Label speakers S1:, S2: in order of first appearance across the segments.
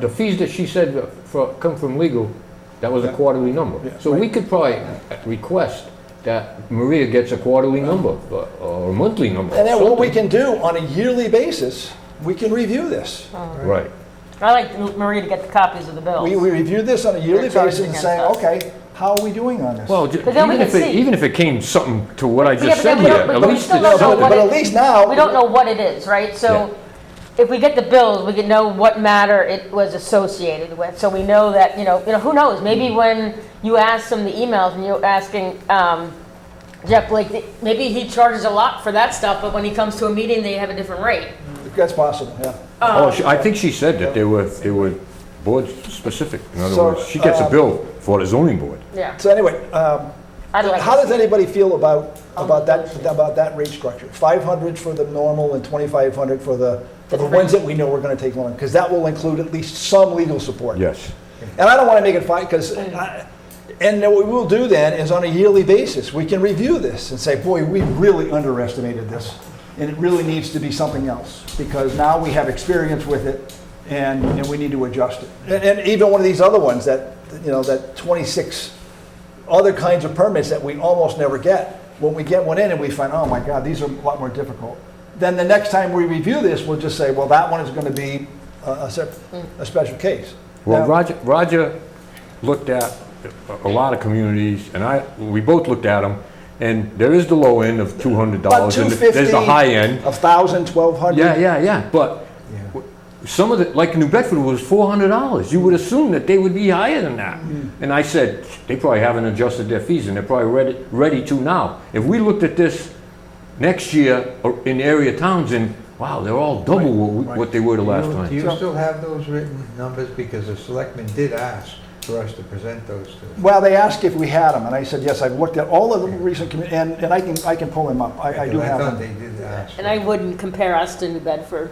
S1: the fees that she said for, come from legal, that was a
S2: Yeah.
S1: quarterly number.
S2: Yeah,
S1: So we could probably request that Maria gets a quarterly number, uh, or a monthly number.
S2: And then what we
S1: something.
S2: can do on a yearly basis, we can review this.
S1: Right.
S3: I like Maria to get the copies of the bills.
S2: We, we review this on a yearly
S3: They're charged
S2: basis and
S3: against
S2: say,
S3: us.
S2: okay, how are we doing on this?
S1: Well, ju-
S3: But then we
S1: even
S3: can
S1: if it,
S3: see.
S1: even if it came something to what I
S3: Yeah,
S1: just
S3: but then
S1: said
S3: we
S1: here,
S3: don't,
S1: at
S3: but we
S1: least
S3: still
S1: it's
S3: don't know
S1: something.
S3: what
S2: But
S3: it-
S2: at least now-
S3: We don't know what it is, right? So if we get the bills, we can know what matter it was associated with. So we know that, you know, you know, who knows?
S2: Mm.
S3: Maybe when you ask them the emails and you're asking, um, Jeff Blake, th- maybe he charges a lot for that stuff, but when he comes to a meeting, they have a different rate.
S2: That's possible, yeah.
S1: Oh,
S3: uh,
S1: she- I think she said that they were, they were board specific. In other
S2: So,
S1: words, she gets a
S2: uh,
S1: bill for the zoning board.
S3: Yeah.
S2: So anyway, um,
S3: I'd like
S2: how
S3: to
S2: does
S3: see.
S2: anybody feel about,
S3: Oh,
S2: about that, about that rate structure? 500 for the normal and 2,500 for the, for the ones that we know we're going to take on? Because that will include at least some legal support.
S1: Yes.
S2: And I don't want to make it fight, because, and what we will do then is on a yearly basis, we can review this and say, boy, we really underestimated this. And it really needs to be something else, because now we have experience with it and, and we need to adjust it. And, and even one of these other ones that, you know, that 26 other kinds of permits that we almost never get. When we get one in and we find, oh my God, these are a lot more difficult. Then the next time we review this, we'll just say, well, that one is going to be a, a, sep- a special case.
S1: Well,
S2: Now-
S1: Roger, Roger looked at a a lot of communities, and I, we both looked at them, and there is the low end of two hundred
S2: About
S1: dollars, and
S2: 250.
S1: there's the high end.
S2: 1,000, 1,200.
S1: Yeah, yeah, yeah, but w- some of the, like New Bedford was four hundred dollars, you would assume that they would be higher than that. And I said, they probably haven't adjusted their fees, and they're probably ready, ready to now. If we looked at this next year or in area towns, and wow, they're all double what, we- what they were the last
S4: Do you- Do
S1: time.
S4: you still have those written numbers? Because the selectmen did ask for us to present those to them.
S2: Well, they asked if we had them, and I said, yes, I've looked at all of the recent, commu- and, and I can, I can pull them up. I, I do
S4: Because
S2: have
S4: thought
S2: them.
S4: they did ask.
S3: And I wouldn't compare us to New Bedford.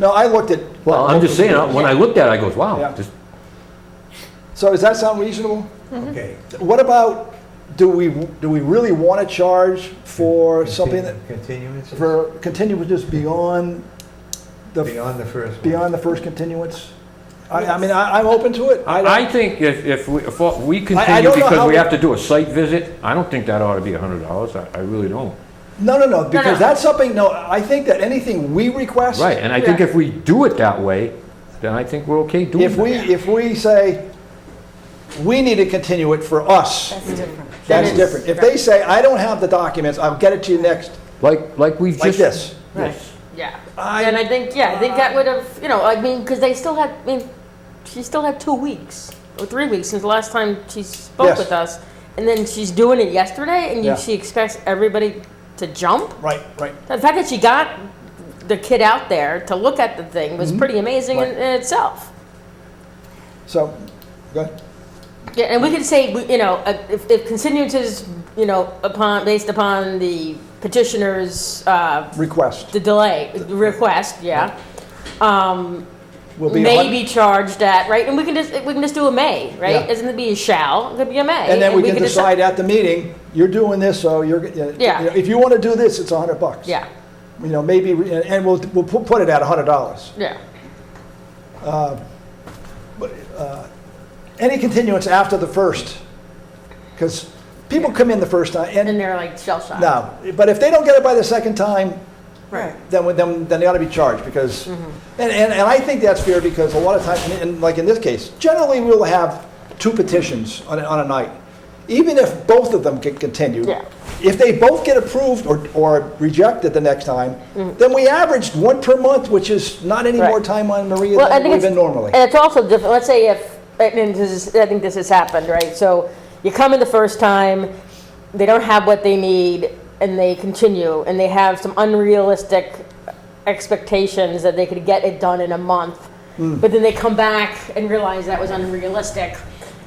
S2: No, I looked at.
S1: Well, I'm just saying, I- when I looked at it, I goes,
S2: Yeah.
S1: wow, this,
S2: So does that sound reasonable?
S4: Okay.
S2: What about, do we, do we really want to charge for something that,
S4: Continuance
S2: for continuances beyond the,
S4: beyond the first one.
S2: beyond the first continuance? I, I mean, I, I'm open to it. I
S1: I
S2: don't,
S1: think if, if we, if we
S2: I
S1: continue
S2: don't know how
S1: because we
S2: we-
S1: have to do a site visit, I don't think that ought to be a hundred dollars, I, I really don't.
S2: no, no, no, because
S3: no.
S2: that's something, no, I think that anything we request.
S1: Right, and I think
S3: Yeah.
S1: if we do it that way, then I think we're okay doing
S2: If we,
S1: that.
S2: if we say, we need to continue it for us,
S3: That's different.
S2: that's different. If they say, I don't have the documents, I'll get it to you next,
S1: Like, like we've
S2: like
S1: just.
S2: this.
S1: Yes.
S3: Yeah.
S2: I-
S3: And I think, yeah, I think that would have, you know, I mean, because they still had, I mean, she still had two weeks or three weeks since the last time she spoke
S2: Yes.
S3: with us. And then she's doing it yesterday and you,
S2: Yeah.
S3: she expects everybody to jump.
S2: Right, right.
S3: The fact that she got the kid out there to look at the thing
S2: Mm-hmm.
S3: was pretty amazing in, in itself.
S2: So, go ahead.
S3: Yeah, and we could say, we- you know, uh, if, if continuances, you know, upon, based upon the petitioner's, uh,
S2: request
S3: the delay, request, yeah. Um,
S2: will be. a hun-
S3: may be charged at, right? And we can just, we can just do a may, right?
S2: Yeah.
S3: Doesn't it be a shall, it could be a may.
S2: And then we can
S3: could
S2: decide at the meeting, you're doing this, so you're, uh, you know,
S3: Yeah.
S2: if you want to do this, it's a hundred bucks.
S3: Yeah,
S2: You know, maybe, uh, and we'll, we'll pu- put it at a hundred dollars.
S3: yeah.
S2: Any continuance after the first, because people come in the first time, and
S3: And uh, they're like shell shocked.
S2: No, but if they don't get it by the second time,
S3: Right.
S2: then, we- then, then they ought to be charged because,
S3: Mm-hmm.
S2: and, and, and I think that's fair because a lot of times, and- and like in this case, generally we'll have two petitions on, a- on a night. Even if both of them get continued,
S3: Yeah.
S2: if they both get approved or, or rejected the next time, then we averaged one per month, which is not any more
S3: Mm-hmm. Right.
S2: time on Maria
S3: Well, I
S2: than
S3: think
S2: we've
S3: it's,
S2: been normally.
S3: and it's also different, let's say if, I mean, this is, I think this has happened, right? So you come in the first time, they don't have what they need, and they continue, and they have some unrealistic expectations that they could get it done in a month.
S2: Hmm.
S3: But then they come back and realize that was unrealistic,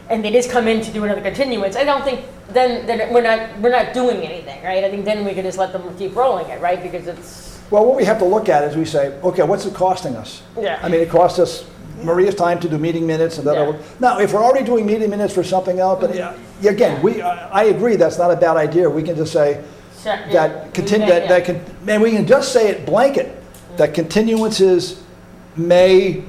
S3: and they just come in to do another continuance. I don't think, then, then we're not, we're not doing anything, right? I think then we could just let them keep rolling it, right? Because it's,
S2: Well, what we have to look at is we say, okay, what's it costing us?
S3: Yeah.
S2: I mean, it costs us Maria's time to do meeting minutes and
S3: Yeah.
S2: that. Now, if we're already doing meeting minutes for something else, but uh, again, we, I I agree, that's not a bad idea. We can just say that, continue, that, that can, man, we
S3: Mm-hmm.
S2: can just say it blanket, that continuances may